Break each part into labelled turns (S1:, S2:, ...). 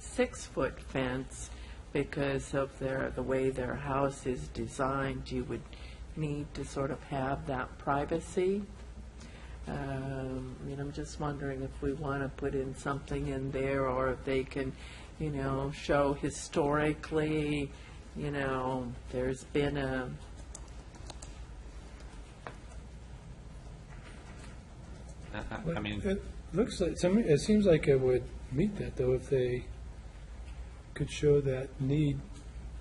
S1: six-foot fence because of their, the way their house is designed, you would need to sort of have that privacy. Um, I mean, I'm just wondering if we want to put in something in there, or if they can, you know, show historically, you know, there's been a,
S2: I- Uh, I I mean,
S3: It looks like, some, it seems like it would meet that, though, if they could show that need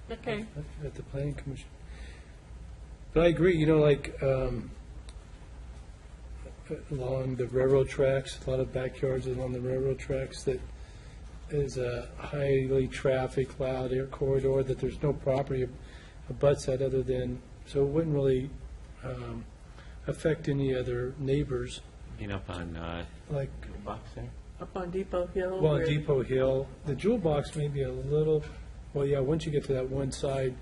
S1: okay,
S3: at the planning commission. But I agree, you know, like, um, along the railroad tracks, a lot of backyards along the railroad tracks that is a highly trafficked, loud air corridor, that there's no property abuts that other than, so it wouldn't really, um, affect any other neighbors,
S2: you know, up on, uh,
S3: like
S2: box there?
S1: up on Depot Hill.
S3: Well,
S1: where-
S3: Depot Hill, the jewel box may be a little, well, yeah, once you get to that one side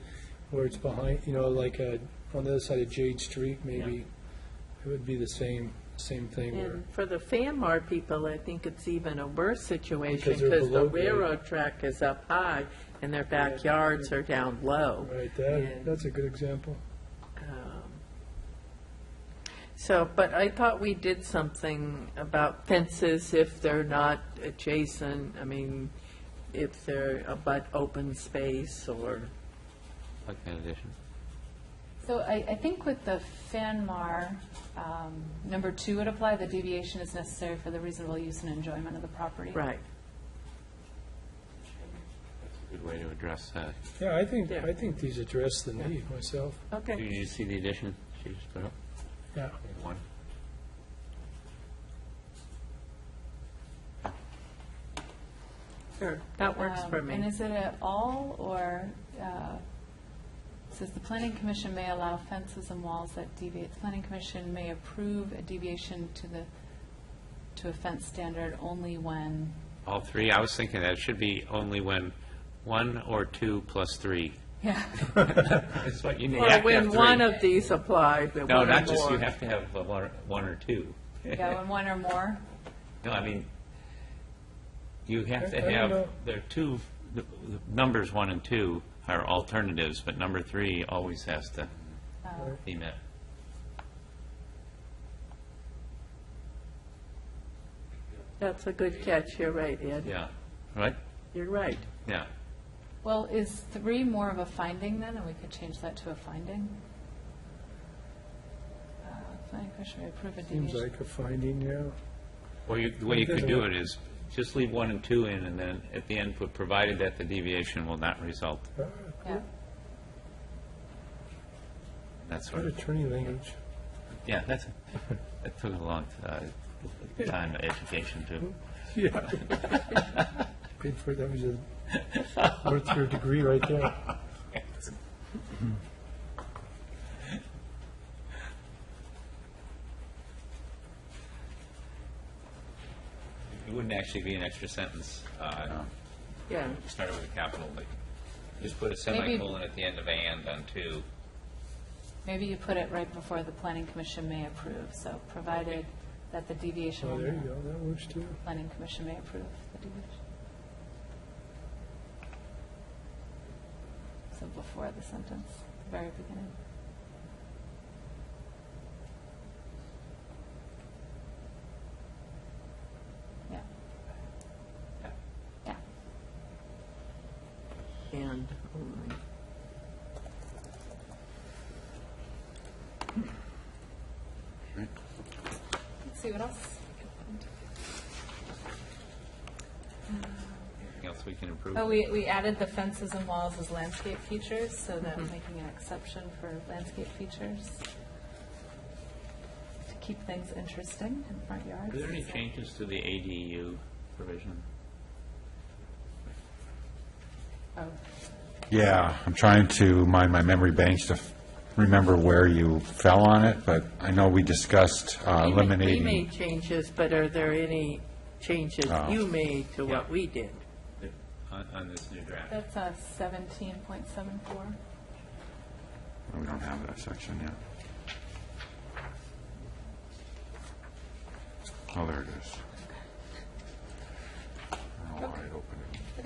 S3: where it's behind, you know, like uh, on the other side of Jade Street, maybe, it would be the same, same thing where,
S1: And for the Fanmar people, I think it's even a worse situation
S3: Because they're
S1: because the
S3: below grade.
S1: railroad track is up high and their backyards are down low.
S3: right,
S1: Yeah.
S3: that, that's a good example.
S1: Um, So, but I thought we did something about fences if they're not adjacent, I mean, if they're abut open space or,
S2: Like that addition?
S4: So I, I think with the FANMAR, um, number two would apply, the deviation is necessary for the reasonable use and enjoyment of the property.
S1: right.
S2: That's a good way to address uh, that.
S3: Yeah, I think,
S1: Yeah.
S3: I think these address the need myself,
S2: Did
S1: Okay,
S2: you see the addition she just put up?
S3: yeah.
S2: One.
S1: sure, that works
S4: Um,
S1: for
S4: And
S1: me.
S4: is it at all, or, uh, it says the planning commission may allow fences and walls that deviate, the planning commission may approve a deviation to the, to a fence standard only when,
S2: All three, I was thinking that it should be only when one or two plus three.
S4: yeah,
S2: That's what you need. You
S1: Or
S2: have to have
S1: when
S2: three.
S1: one of these apply, but
S2: No,
S1: one or
S2: not just, you
S1: more.
S2: have to have uh, one one or two.
S4: yeah, when one or more,
S2: No, I mean, you have
S3: I- I
S2: to
S3: don't
S2: have,
S3: know.
S2: there are two, the- the numbers one and two are alternatives, but number three always has to
S1: Uh,
S2: be met.
S1: That's a good catch, you're right, Ed,
S2: Yeah, right?
S1: you're right.
S2: Yeah.
S4: well, is three more of a finding then, and we could change that to a finding? Uh, Planning commission may approve a deviation.
S3: Seems like a finding, yeah.
S2: Or you, the way you could do it is, just leave one and two in, and then at the end, put, provided that the deviation will not result,
S4: Yeah,
S2: that sort
S3: Good
S2: of,
S3: attorney language.
S2: yeah, that's, that took a long uh, time of education to,
S3: Yeah. Paid for, that was a, worth your degree right there.
S2: it wouldn't actually be an extra sentence, uh,
S1: Yeah,
S2: started with a capital, but just put a semicolon at the end of and on two.
S4: maybe you put it right before the planning commission may approve, so provided that the deviation.
S3: Oh,
S4: will
S3: there you
S4: not-
S3: go, that works too.
S4: Planning commission may approve the deviation. So before the sentence, the very beginning. Yeah.
S2: Yeah.
S4: Yeah.
S1: and oh only.
S4: Let's see what else. we can find.
S2: Anything else we can improve?
S4: Oh, we, we added the fences and walls as landscape features, so that making an exception for landscape features to keep things interesting in front yards.
S2: Are there any changes to the ADU provision?
S4: Oh,
S5: Yeah, I'm trying to mind my memory banks to f- remember where you fell on it, but I know we discussed
S1: We made-
S5: uh,
S1: We
S5: eliminating.
S1: made changes, but are there any changes
S5: Oh.
S1: you made to what
S2: Yeah.
S1: we did?
S2: On, on this new draft?
S4: that's a seventeen point seven four.
S5: Oh, We don't have that section yet. Oh, there it is. I don't know why it opened